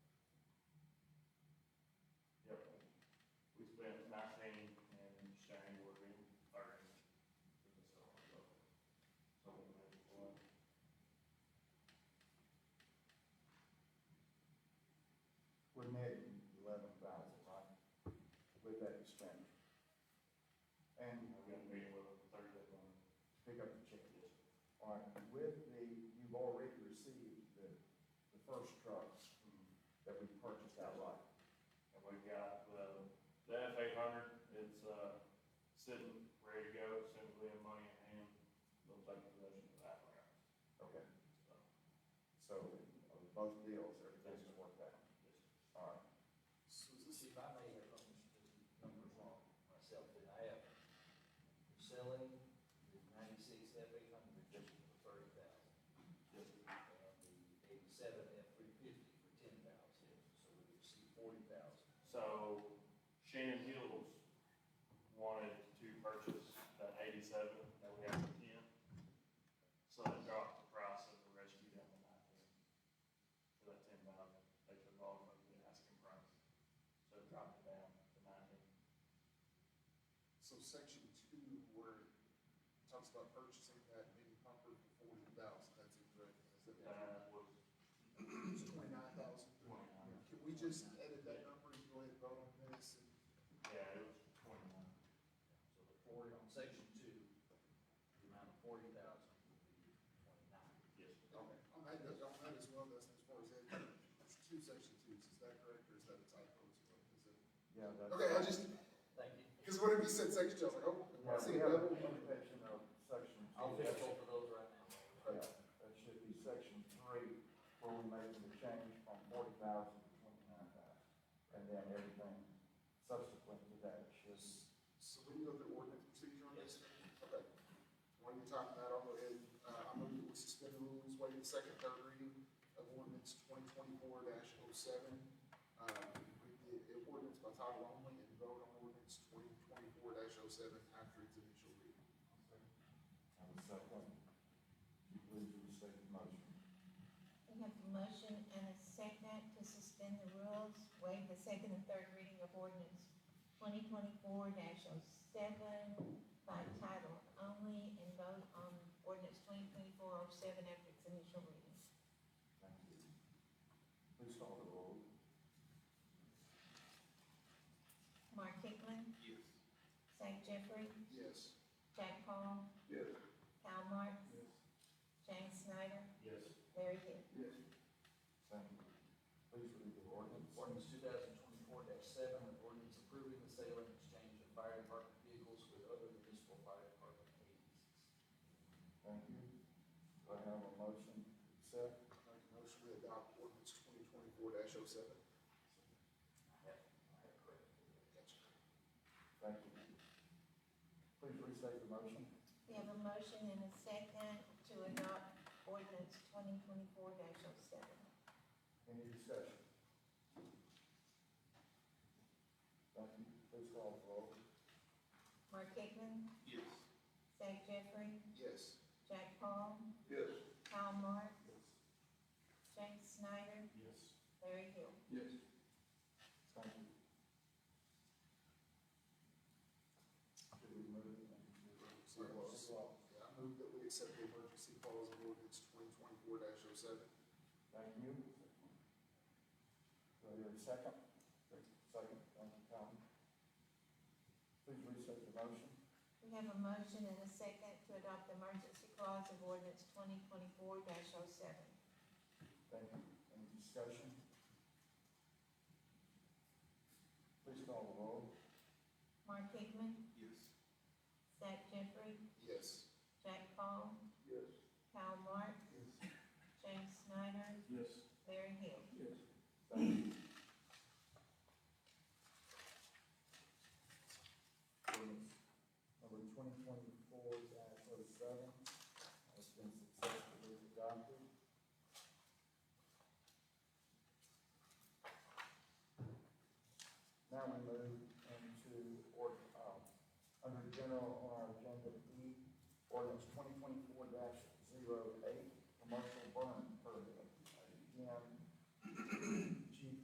The F eight hundred, it's, uh, sitting, ready to go, simply in money in hand, they'll take possession of that round, Okay, so. so on both deals, everything's just worked out. All right. So this is my main numbers wrong myself that I have. Selling the ninety-six F eight hundred for thirty thousand. Yes, And the eighty-seven F three fifty for ten thousand, so we would see forty thousand. So Shannon Hills wanted to purchase that eighty-seven that we have for ten. So they dropped the price of the rescue down to nineteen. For that ten thousand, they took off of the asking price. So it dropped it down to nineteen. So section two, where it talks about purchasing that mini pumper for forty thousand, that's incorrect. Is that right? That was It's twenty-nine thousand. twenty-nine. Can we just edit that number and go ahead and vote on this? And Yeah, it was twenty-nine. So the forty on section two, the amount of forty thousand would be twenty-nine. Yes. Okay. On that, on that as well, that's as far as that, it's two section twos, is that correct, or is that a typo as well? Is it? Yeah, that's. Okay, I just, Thank you. because whenever you said section two, I was like, oh, I Yeah, see we a have a double. limitation of section two. I'll fix both of those right Yeah, now. that should be section three, where we're making the change from forty thousand to twenty-nine thousand. And then everything subsequent to that should, So we can go through ordinance procedure on this? Okay. While you're talking that, I'll go ahead, uh, I'm going to suspend the rules, waive the second, third reading of ordinance twenty twenty-four oh 7 Uh, read the ordinance by title only and vote on ordinance twenty twenty-four 7 after its initial reading. I would second. If you please restate the motion. We have a motion and a second to suspend the rules, waive the second and third reading of ordinance twenty twenty-four 7 by title only and vote on ordinance twenty twenty-four oh seven after its initial reading. Thank you. Please call the roll. Mark Hicklin. Yes. Zach Jeffrey, Yes. Jack Paul. Yes. Kyle Martin. James Snyder, Yes. Larry Hill. Thank you. Please read the ordinance. Ordinance two thousand twenty-four seven, an ordinance approving the sale and exchange of fire department vehicles with other municipal fire department agencies. Thank you. Do I have a motion to accept? Make a motion to adopt ordinance twenty twenty-four oh 7 Gotcha. Thank you. Please restate the motion. We have a motion and a second to adopt ordinance twenty twenty-four oh 7 Any discussion? Thank you. Please call the roll. Mark Hicklin. Yes. Zach Jeffrey, Yes. Jack Paul, Yes. Kyle Mark, James Snyder, Yes. Larry Hill. Yes. Thank you. Should we move? and- Sorry, I was- Yeah, I move that we accept the emergency clause of ordinance twenty twenty-four oh 7 Thank you. Do I hear a second? Second, thank you, Tom. Please restate the motion. We have a motion and a second to adopt the emergency clause of ordinance twenty twenty-four oh 7 Thank you. Any discussion? Please call the roll. Mark Hickman, Yes. Zach Jeffrey, Yes. Jack Paul, Yes. Kyle Mark, Yes. James Snyder, Yes. Larry Hill. Yes. Thank you. Ordinance Number twenty twenty-four dash oh seven has been successfully adopted. Now we move into, or, um, under general on our agenda E, ordinance twenty twenty-four dash zero